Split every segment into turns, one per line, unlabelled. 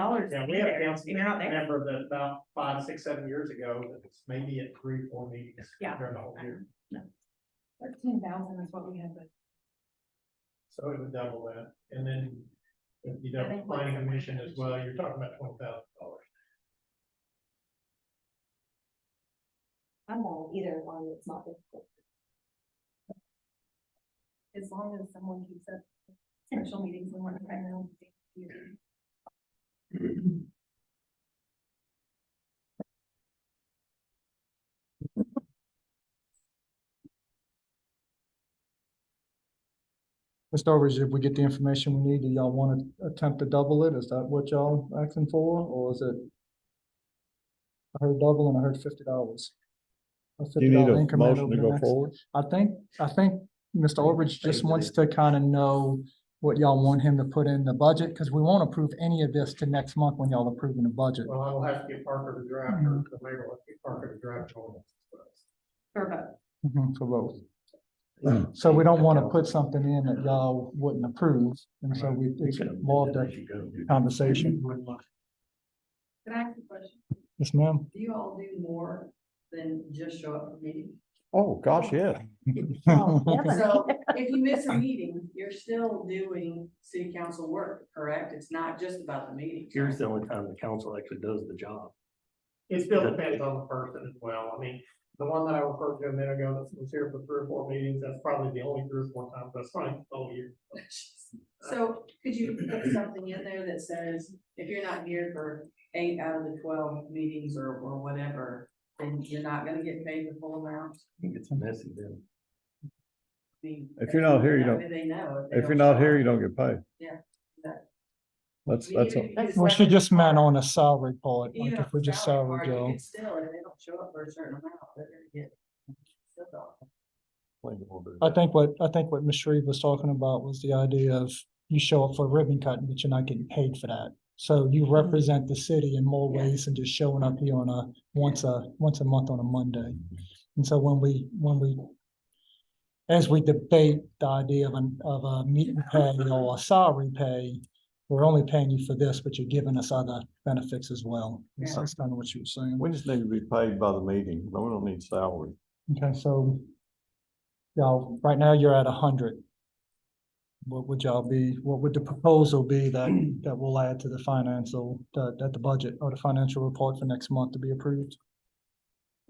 dollars.
Yeah, we had a
there.
council
They're not there.
member that about five, six, seven years ago, that was maybe at three, four meetings.
Yeah.
During the whole year,
Thirteen thousand is what we had, but
so it would double that, and then if you
I
double
think
planning
what's-
commission as well, you're talking about twenty thousand dollars.
I'm all either one, it's not difficult. As long as someone keeps up special meetings and one primary.
Mr. Overage, if we get the information we need, do y'all want to attempt to double it? Is that what y'all asking for, or is it? I heard double and I heard fifty dollars.
Do you need a motion to go forward?
I think, I think Mr. Overage just wants to kind of know what y'all want him to put in the budget, because we won't approve any of this to next month when y'all approving the budget.
Well, I will have to get Parker to draft, or the mayor will have to get Parker to draft. all of this.
For vote.
Mhm, For both. So we don't want to put something in that y'all wouldn't approve, and so we, it's more of the conversation.
Can I ask a question?
Yes, ma'am.
Do you all do more than just show up for meetings?
Oh, gosh, yeah.
Oh,
So if you miss a meeting, you're still doing city council work, correct? It's not just about the meetings.
Here's the only time the council actually does the job.
It still depends on the person as well, I mean, the one that I referred to a minute ago that was here for three or four meetings, that's probably the only three or four times, that's probably the whole year.
So could you put something in there that says, if you're not here for eight out of the twelve meetings or, or whatever, then you're not gonna get paid the full amount?
I think it's messy then.
I mean,
If you're not here, you
that
don't-
way They know. they
If you're
don't show
not here,
up.
you don't get paid.
Yeah, exactly.
That's,
Even
that's,
if
a-
you
Well, she
separate
just meant
part-
on a salary part, like
Even
if we
on
just
salary
salary
part, you
Joe.
could Still, if they don't show up for a certain amount, they're gonna get. still don't.
I think what, I think what Ms. Shreve was talking about was the idea of you show up for ribbon cutting, but you're not getting paid for that. So you represent the city in more
Mm-hmm. Yeah.
ways than just showing up here on a, once a, once a month on a Monday. And so when we, when we, as we debate the idea of an, of a meeting pay or a salary pay, we're only paying you for this, but you're giving us other benefits as well. And so That's kind of what she was saying.
we just need to be paid by the meeting. No, we don't need salary.
Okay, so y'all, right now you're at a hundred. What would y'all be, what would the proposal be that, that will add to the financial, that, that the budget or the financial report for next month to be approved?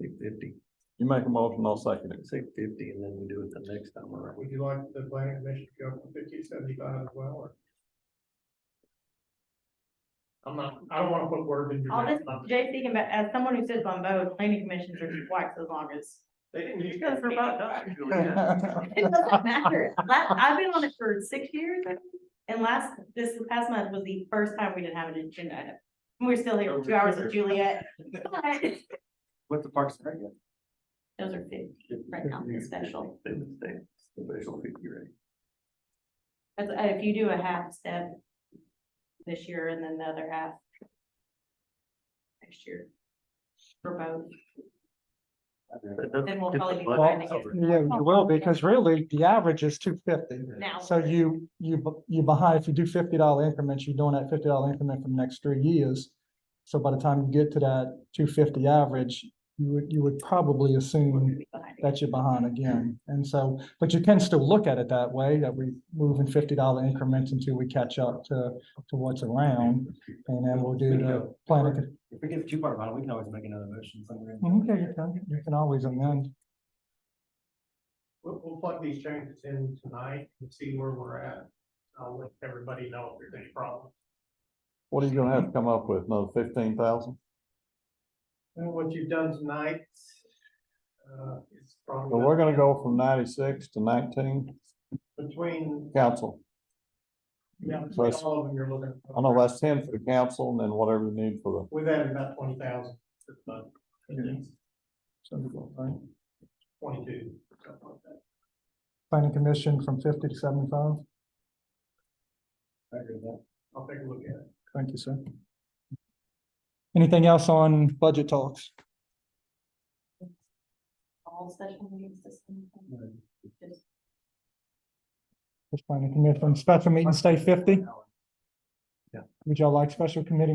Say fifty,
You make a motion, I'll second it.
say fifty, and then we do it the next time around.
Would you like the planning commission to go from fifty to seventy-five as well, or? I'm not, I don't wanna put words in your
All
mouth.
this, Jay speaking, but as someone who sits on both, planning commissions are twice as long as.
They didn't use
Because
that
for
for
both.
Actually,
It doesn't matter. Last, I've been on it for six years I think, and last, this past month was the first time we didn't have an agenda. item. And We're still here for two hours with Juliet. but
What's the parks and Rec at?
Those are fifty right now, the special.
They would stay, special fifty rate.
That's, uh, if you do a half step this year and then the other half next year for both,
That doesn't
then we'll
get the
probably be
budget
behind again.
covered.
Yeah, you will, because really the average is two fifty.
now.
So you, you, bu- you behind, if you do fifty dollar increments, you're doing that fifty dollar increment for the next three years. So by the time you get to that two fifty average, you would, you would probably
we'll
assume
be behind again.
that you're behind again. And so, but you can still look at it that way, that we move in fifty dollar increments until we catch up to, to what's around. And then we'll do the planning.
If we get too far behind, we can always make another motion somewhere.
Okay, you can, you can always amend.
We'll, we'll plug these changes in tonight and see where we're at. I'll let everybody know if there's any problems.
What are you gonna have to come up with? Another fifteen thousand?
And what you've done tonight, uh, is
So
probably
we're gonna go from ninety-six to nineteen
between,
council.
yeah,
So
between
it's-
all of them, you're looking.
I know that's ten for the council and then whatever you need for
We've added about twenty thousand this month, at
Yeah.
least twenty-two, something like that.
Planning commission from fifty to seventy-five.
I agree with that.
I'll take a look at it.
Thank you, sir. Anything else on budget talks?
All special meetings this month. Just
Just planning commission, special meeting, stay fifty?
Yeah.
Would y'all like special committee